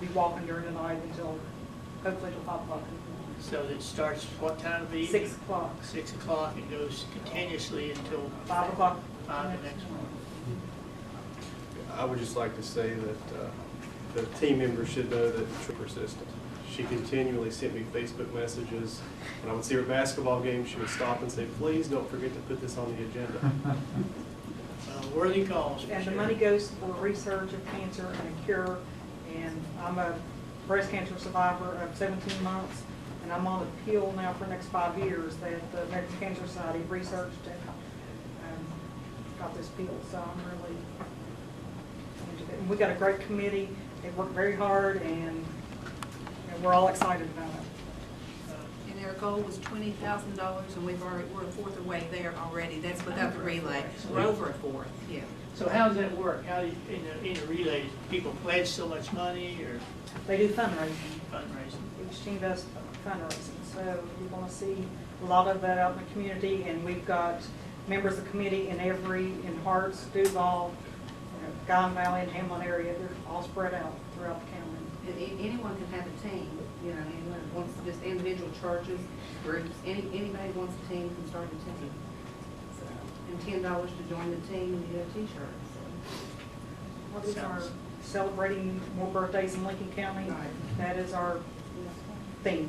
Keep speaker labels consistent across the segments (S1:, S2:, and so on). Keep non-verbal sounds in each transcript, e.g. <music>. S1: be walking during the night until, hopefully till five o'clock. in
S2: So it starts what time of
S1: the
S2: the
S1: morning.
S2: evening?
S1: Six o'clock,
S2: Six o'clock and goes continuously until
S1: five o'clock.
S2: five the next morning.
S3: I would just like to say that uh, the team members should know that she's persistent. She continually sent me Facebook messages. When I would see her basketball game, she would stop and say, please don't forget to put this on the agenda.
S2: Uh, Worthy cause. for
S1: And the
S2: sure.
S1: money goes for research of cancer and a cure. And I'm a breast cancer survivor of 17 months, and I'm on appeal now for the next five years that the American Cancer Society researched and um, got this bill, so I'm really. and We got a great committee, they worked very hard, and and we're all excited about it.
S2: Uh,
S4: And our goal was twenty thousand dollars, and we've already, we're a fourth away there already, that's without the relay, we're over a fourth, yeah.
S2: So how does that work? How, do you- in a, in a relay, people pledge so much money or
S1: They do fundraising.
S2: fundraising?
S1: each team does fundraising. So you're going to see a lot of that out in the community, and we've got members of the committee in every, in Hearts, Duval, you know, Guyon Valley, and Hamlin area, they're all spread out throughout the county.
S5: And a- anyone can have a team, you know, anyone that wants, just individual churches, groups, any, anybody wants a team can start a team. So, And ten dollars to join the team and you get a t-shirt, so.
S1: What is our celebrating more birthdays in Lincoln County?
S5: Right.
S1: That is our theme.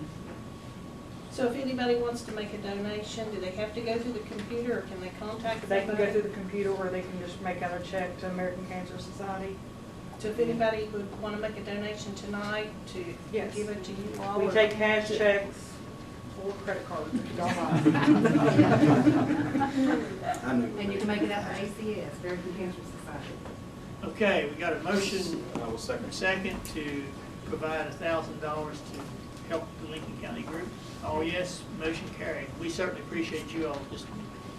S6: So if anybody wants to make a donation, do they have to go through the computer or can they contact
S1: They can go
S6: somebody?
S1: through the computer, or they can just make out a check to American Cancer Society.
S6: So if anybody would want to make a donation tonight to
S1: Yes.
S6: give it to you all?
S1: We
S6: or-
S1: take cash checks or credit cards, if you don't mind.
S7: I knew.
S5: And you can make it out to ACS, American Cancer Society.
S2: Okay, we got a motion,
S3: I will second.
S2: second, to provide a thousand dollars to help the Lincoln County group. All yes, motion carried. We certainly appreciate you all just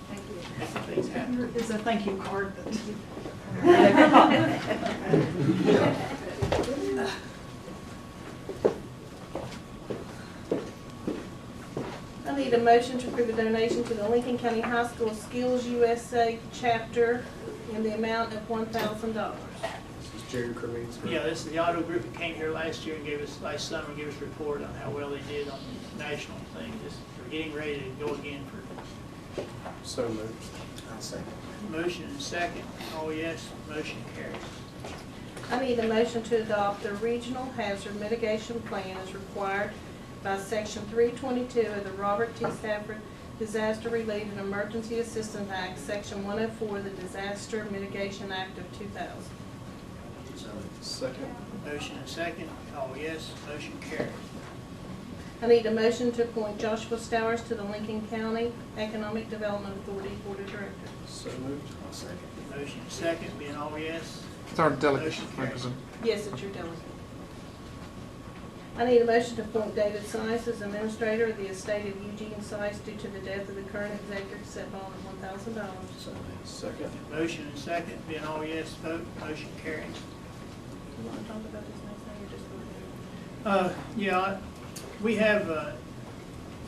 S5: Thank you.
S2: making things happen.
S1: It's a thank you card that
S5: <laughs>
S4: <laughs>
S6: I need a motion to approve a donation to the Lincoln County High School Skills USA chapter in the amount of one thousand dollars.
S3: This is Jerry Cremings.
S2: Yeah, this is the auto group that came here last year and gave us, last summer, gave us a report on how well they did on the national thing. Just, we're getting ready to go again for
S3: So moved.
S7: I'll second.
S2: motion and second. All yes, motion carries.
S6: I need a motion to adopt the regional hazard mitigation plan as required by section three twenty-two of the Robert T. Stafford Disaster Relief and Emergency Assistance Act, section one oh four, the Disaster Mitigation Act of two thousand.
S7: So,
S3: Second.
S2: Motion and second. All yes, motion carries.
S6: I need a motion to appoint Joshua Stowers to the Lincoln County Economic Development Authority Board of Directors.
S3: So moved.
S7: I'll second.
S2: Motion and second, being all yes.
S8: It's our delegation.
S2: Motion carries.
S6: Yes, it's your delegate. I need a motion to appoint David Sines as administrator of the estate of Eugene Sines due to the death of the current executor, set bond of one thousand dollars.
S7: So, moved.
S3: Second.
S2: Motion and second, being all yes, vote, motion carries.
S6: Do you want to talk about this next thing or just go ahead?
S2: Uh, yeah, I- we have, uh,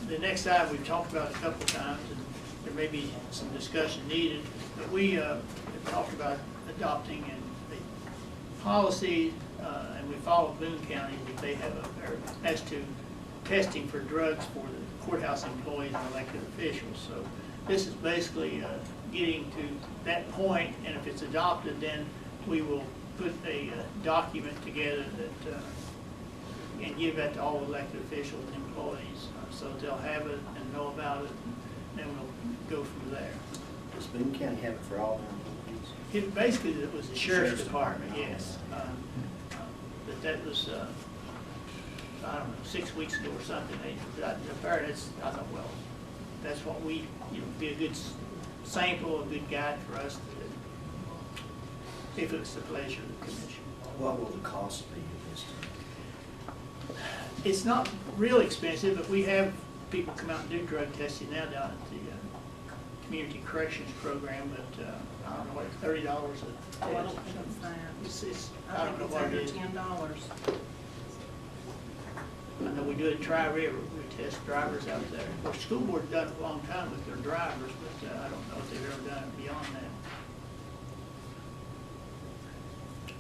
S2: the next item we've talked about a couple of times, and there may be some discussion needed, but we, uh, have talked about adopting and the policy, uh, and we follow Boone County, that they have, a- or as to testing for drugs for the courthouse employees and elected officials, so this is basically, uh, getting to that point, and if it's adopted, then we will put a uh, document together that, uh, and give that to all elected officials and employees, uh, so they'll have it and know about it, and then we'll go from there.
S7: Does Boone County have it for all their employees?
S2: It basically, it was the sheriff's
S7: Sheriff's
S2: department,
S7: Department.
S2: yes. um, uh, But that was, uh, I don't know, six weeks ago or something, they, that, that's, I thought, well, that's what we, you know, be a good s- sample, a good guide for us to, if it's the pleasure of the commission.
S7: What will the cost be of this?
S2: It's not real expensive, but we have people come out and do drug testing now down at the uh, Community Corrections Program, but uh, I don't know, what thirty dollars a
S6: Oh, I don't
S2: test.
S6: think it's that.
S2: It's, it's, I
S6: I
S2: don't know
S6: think it's
S2: what it
S6: under
S2: is.
S6: ten dollars.
S2: I know we do it at Tri River, we test drivers out there. Of course, school board done it a long time with their drivers, but uh, I don't know if they've ever done it beyond that.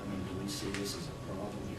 S7: I mean, do we see this as a problem